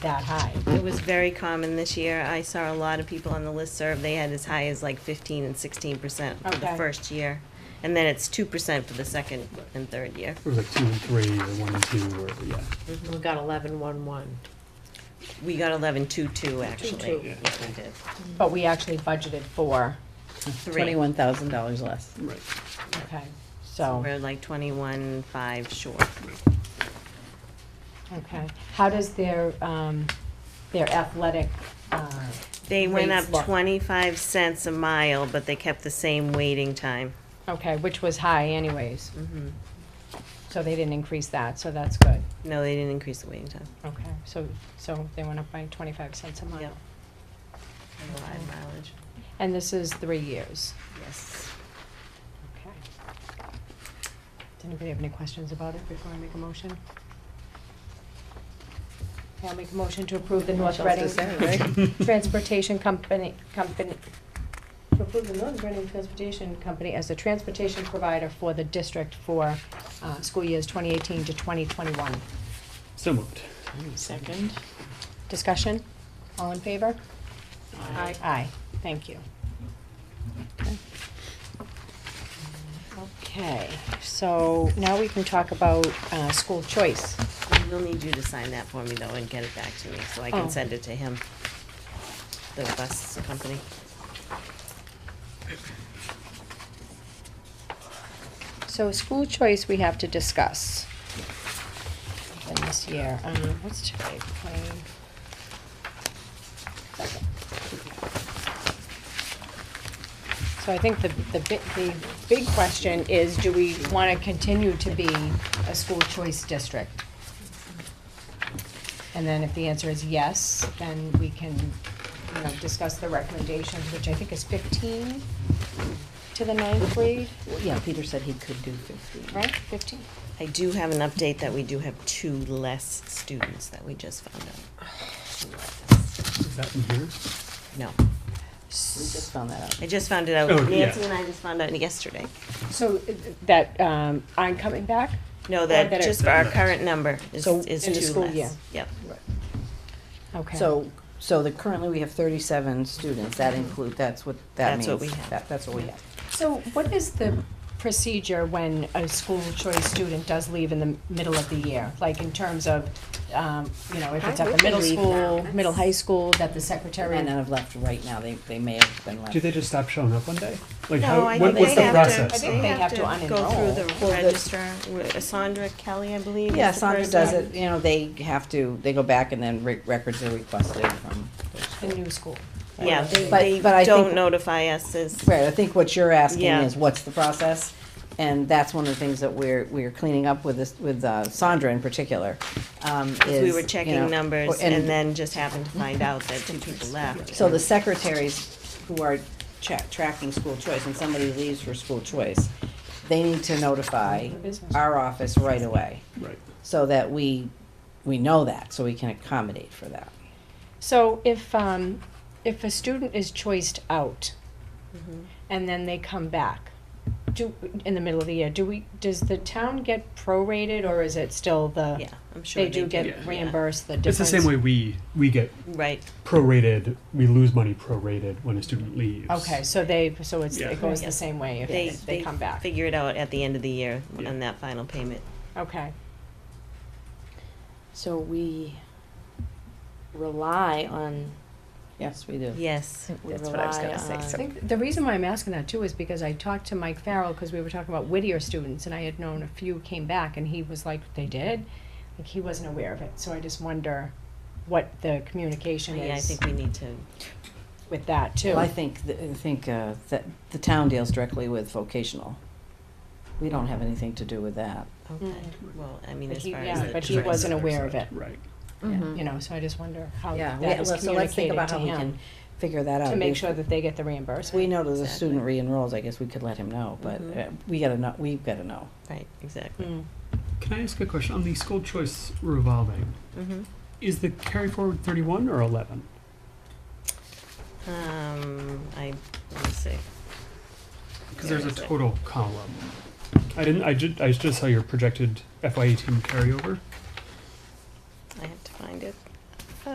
that high. It was very common this year. I saw a lot of people on the listserv, they had as high as like fifteen and sixteen percent for the Okay. first year. And then it's two percent for the second and third year. It was like two and three, or one and two, or, yeah. We got eleven one one. We got eleven two two actually. 2.2. Yeah, we did. But we actually budgeted for, Three. Twenty-one thousand dollars less. Right. okay, so, We're like twenty-one five short. okay. How does their, um, their athletic, uh, They went Rates up look. twenty-five cents a mile, but they kept the same waiting time. Mm-hmm. okay, which was high anyways? So they didn't increase that, so that's good. No, they didn't increase the waiting time. Okay, so, so they went up by twenty-five cents a mile. Yep. And the live mileage, And this is three years. yes. Okay. Does anybody have any questions about it before I make a motion? Okay, I'll make a motion to approve the North Reading Transportation Company, company, to approve the North Reading Transportation Company as the transportation provider for the district for, uh, school years twenty eighteen to twenty twenty-one. So moved. Second. Discussion? All in favor? Aye. Aye, thank you. Okay, so now we can talk about, uh, school choice. You'll need you to sign that for me though and get it back to me, so I Oh. can send it to him. The bus company. So school choice we have to discuss. In this year, um, what's today, twenty? So I think the, the big, the big question is, do we wanna continue to be a school choice district? And then if the answer is yes, then we can, you know, discuss the recommendations, which I think is fifteen to the ninth grade, Yeah, Peter said he could do fifteen. right, fifteen? I do have an update that we do have two less students that we just found out. Is that from here? No, We just found that out. I just found it out. Oh, yeah. Nancy and I just found out yesterday. So uh, that, um, I'm coming back? No, that, better- just for our current number is, So, is in the two school less. year. Yep, Okay. So, so the, currently we have thirty-seven students, that include, that's what, that means. That's what we have. That- That's what we have. So what is the procedure when a school choice student does leave in the middle of the year? Like in terms of, um, you know, if it's Why at would the middle they leave now? school, middle That's- high school, that the Terry secretary. and I have left right now, they, they may have been left. Do they just stop showing up one day? Like, No, how, I what, think they what's the have to- process? I think of- they have to Go unenroll. through the Well, the- register, with- Sandra Kelly, I believe, is Yeah, the Sandra person. does it, you know, they have to, they go back and then re- records are requested from. The new school. Yeah, they, But- they but I don't think- notify us as, Right, I think what you're asking Yeah. is what's the process? And that's one of the things that we're, we're cleaning up with this, with uh, Sandra in particular, um, is. we you were know, checking numbers and- and then just happened to find out that two people left. So the secretaries who are cha- tracking school choice, when somebody leaves for school choice, they need to notify our office right away, Right. so that we, we know that, so we can accommodate for that. So if, um, if a student is choiced out and then they come back, do, in the middle of the year, do we, does the town get prorated or is it still the? Yeah, I'm sure They they do Yeah. get Yeah. reimbursed the It's difference? the same way we, we get Right, prorated, we lose money prorated when a student leaves. Okay, so they, so it's, Yeah. it goes Yeah. the same way if they, if they come back? figure it out at the end of the year Yeah. on that final payment. Okay, So we rely on, Yes, we do. Yes, we rely I on, think the reason why I'm asking that too is because I talked to Mike Farrell, cause we were talking about Whittier students, and I had known a few came back, and he was like, they did? Like, he wasn't aware of it, so I just wonder what the communication Oh, Oh, yeah, I is think we need to, with that too. Well, I think, th- I think uh, that the town deals directly with vocational. We don't have anything to do with that. okay, well, I mean, But as he- far as yeah, the but he choice- wasn't aware of it, Right. you know, so I just wonder how Yeah, that we- is so let's think communicated about to how we him, can figure that out. to make If- sure that they get the reimbursement. We know that the Exactly. student re-enrolls, I guess we could let him know, but Mhm. uh, we gotta know, we've gotta know. Right, exactly. Mm. Can I ask a question? On the school choice revolving, Mm-hmm. is the carry forward 31 or 11? Um, I, let me see. Because There there's a is it. total column. I didn't, I just, I just saw your projected FY18 carryover. I have to find it.